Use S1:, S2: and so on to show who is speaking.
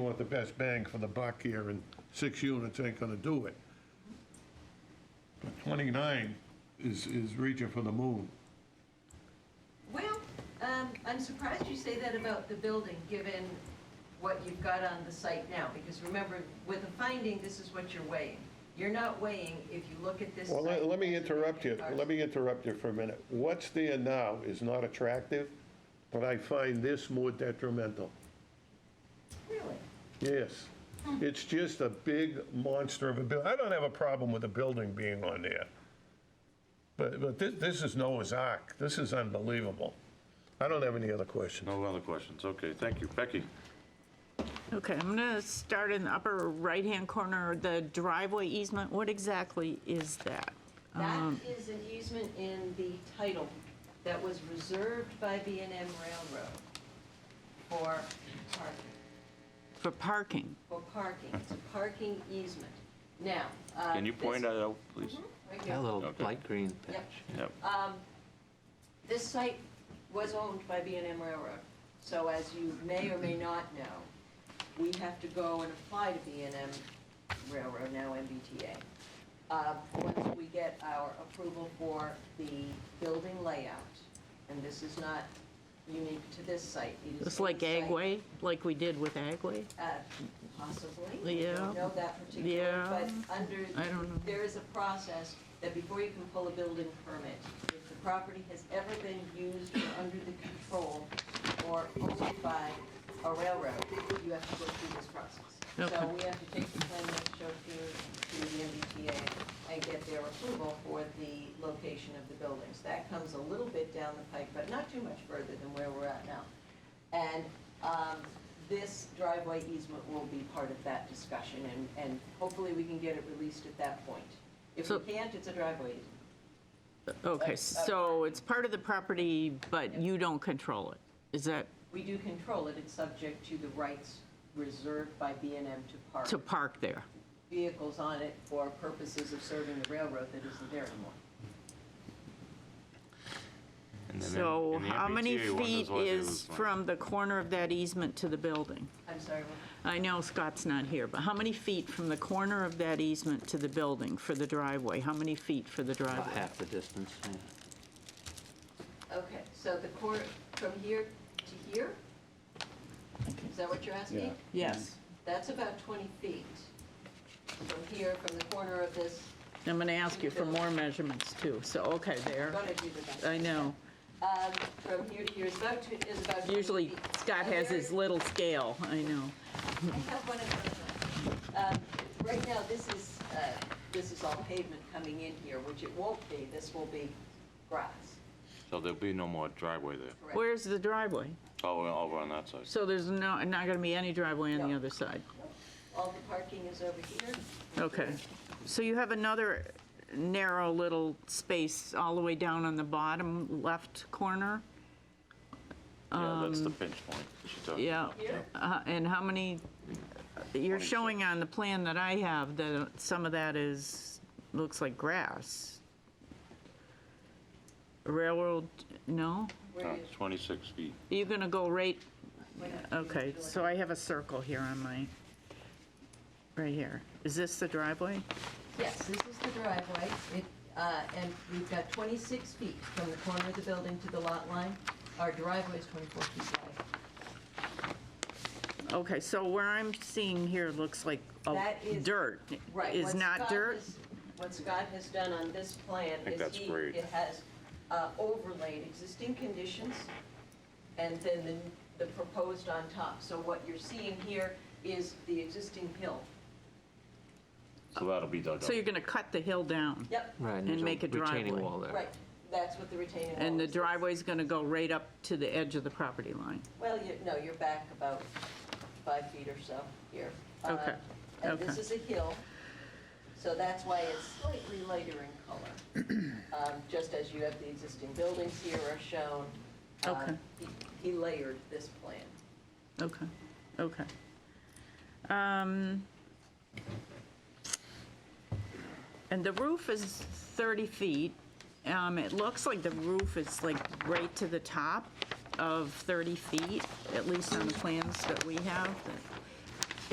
S1: want the best bang for the buck here, and six units ain't gonna do it. But 29 is, is reaching for the moon.
S2: Well, um, I'm surprised you say that about the building, given what you've got on the site now, because remember, with a finding, this is what you're weighing. You're not weighing, if you look at this
S1: Well, let
S2: site-
S1: let me interrupt you, let me interrupt you for a minute. What's there now is not attractive, but I find this more detrimental.
S2: Really?
S1: Yes. It's just a big monster of a building. I don't have a problem with the building being on there. But, but this, this is Noah's Ark. This is unbelievable. I don't have any other questions.
S3: No other questions? Okay, thank you. Becky?
S4: Okay, I'm gonna start in the upper right-hand corner, the driveway easement, what exactly is that?
S2: That is an easement in the title that was reserved by b and m Railroad for parking.
S4: For parking,
S2: for parking, it's a parking easement. Now. uh,
S3: Can you point
S2: this- Mm-hmm.
S3: that out, please?
S2: Right here.
S5: That little
S3: Okay.
S5: light green
S2: Yep.
S5: patch.
S3: Yep.
S2: Uh, This site was owned by b and m Railroad, so as you may or may not know, we have to go and apply to b and m Railroad, now MBTA. Uh, Once we get our approval for the building layout, and this is not unique to this site. it is
S4: it's like
S2: any site.
S4: Agway, like we did with Agway?
S2: Uh, Possibly. I
S4: Yeah.
S2: don't know that particular,
S4: Yeah.
S2: but under,
S4: I don't know.
S2: there is a process that before you can pull a building permit, if the property has ever been used or under the control or owned by a railroad, you have to go through this process. So
S4: Okay.
S2: we have to take the plan that showed you to the MBTA and get their approval for the location of the buildings. That comes a little bit down the pike, but not too much further than where we're at now. And um, this driveway easement will be part of that discussion, and and hopefully we can get it released at that point. If we
S4: So-
S2: can't, it's a driveway easement.
S4: Okay, so it's part of the property, but you don't control it, is that
S2: We do control it, it's subject to the rights reserved by b and m to park
S4: to park there?
S2: vehicles on it for purposes of serving the railroad that isn't there anymore.
S3: And then
S4: So
S3: in the
S4: how many
S3: MBTA one,
S4: feet
S3: there's one- there's
S4: is
S3: one.
S4: from the corner of that easement to the building?
S2: I'm sorry, what?
S4: I know Scott's not here, but how many feet from the corner of that easement to the building for the driveway? How many feet for the
S5: About
S4: driveway?
S5: half the distance, yeah.
S2: Okay, so the cor, from here to here? Is that what you're asking?
S4: Yes.
S2: That's about 20 feet. From here, from the corner of this,
S4: I'm going to ask you for more measurements too, so, okay, there.
S2: gonna do the best.
S4: I know.
S2: Um, From here to here is about, tw- is about 20
S4: Usually
S2: feet.
S4: Scott
S2: And
S4: has
S2: there-
S4: his little scale, I know.
S2: I have one of those. Um, Right now, this is, uh, this is all pavement coming in here, which it won't be, this will be grass,
S3: So there'll be no more driveway there.
S2: correct?
S4: Where's the driveway?
S3: Oh, we're over on that side.
S4: So there's no, not going to be any driveway on the
S2: No.
S4: other side?
S2: All the parking is over here.
S4: Okay. So you have another narrow little space all the way down on the bottom left corner?
S3: Yeah, that's the pinch point. She's talking.
S4: Um, Yeah.
S2: Here,
S4: Uh, And how many, you're
S3: 26.
S4: showing on the plan that I have that some of that is, looks like grass. Railroad, no?
S2: where
S3: Uh,
S2: you-
S3: 26 feet.
S4: You're gonna go right,
S2: when you-
S4: okay, so I have a circle here on my, right here. Is this the driveway?
S2: Yes, this is the driveway, it, uh, and we've got 26 feet from the corner of the building to the lot line. Our driveway is 24 feet wide.
S4: Okay, so where I'm seeing here looks like a
S2: That is-
S4: dirt.
S2: Right.
S4: Is
S2: what
S4: not
S2: Scott
S4: dirt?
S2: has- What Scott has done on this plan
S3: think
S2: is
S3: that's
S2: he,
S3: great.
S2: it has uh, overlaid existing conditions and then the, the proposed on top. So what you're seeing here is the existing hill.
S3: So that'll be dug
S4: So you're
S3: up.
S4: gonna cut the hill down?
S2: Yep,
S5: Right,
S4: And
S5: there's
S4: make a driveway.
S5: Retaining wall there.
S2: right, that's what the retaining wall is.
S4: And the driveway's gonna go right up to the edge of the property line?
S2: Well, you, no, you're back about five feet or so here. Uh,
S4: Okay,
S2: And this
S4: okay.
S2: is a hill, so that's why it's slightly lighter in color. Um, Just as you have the existing buildings here are shown. um,
S4: Okay.
S2: he- He layered this plan.
S4: Okay, okay. Um, And the roof is 30 feet. Um, It looks like the roof is like right to the top of 30 feet, at least on the plans that we have.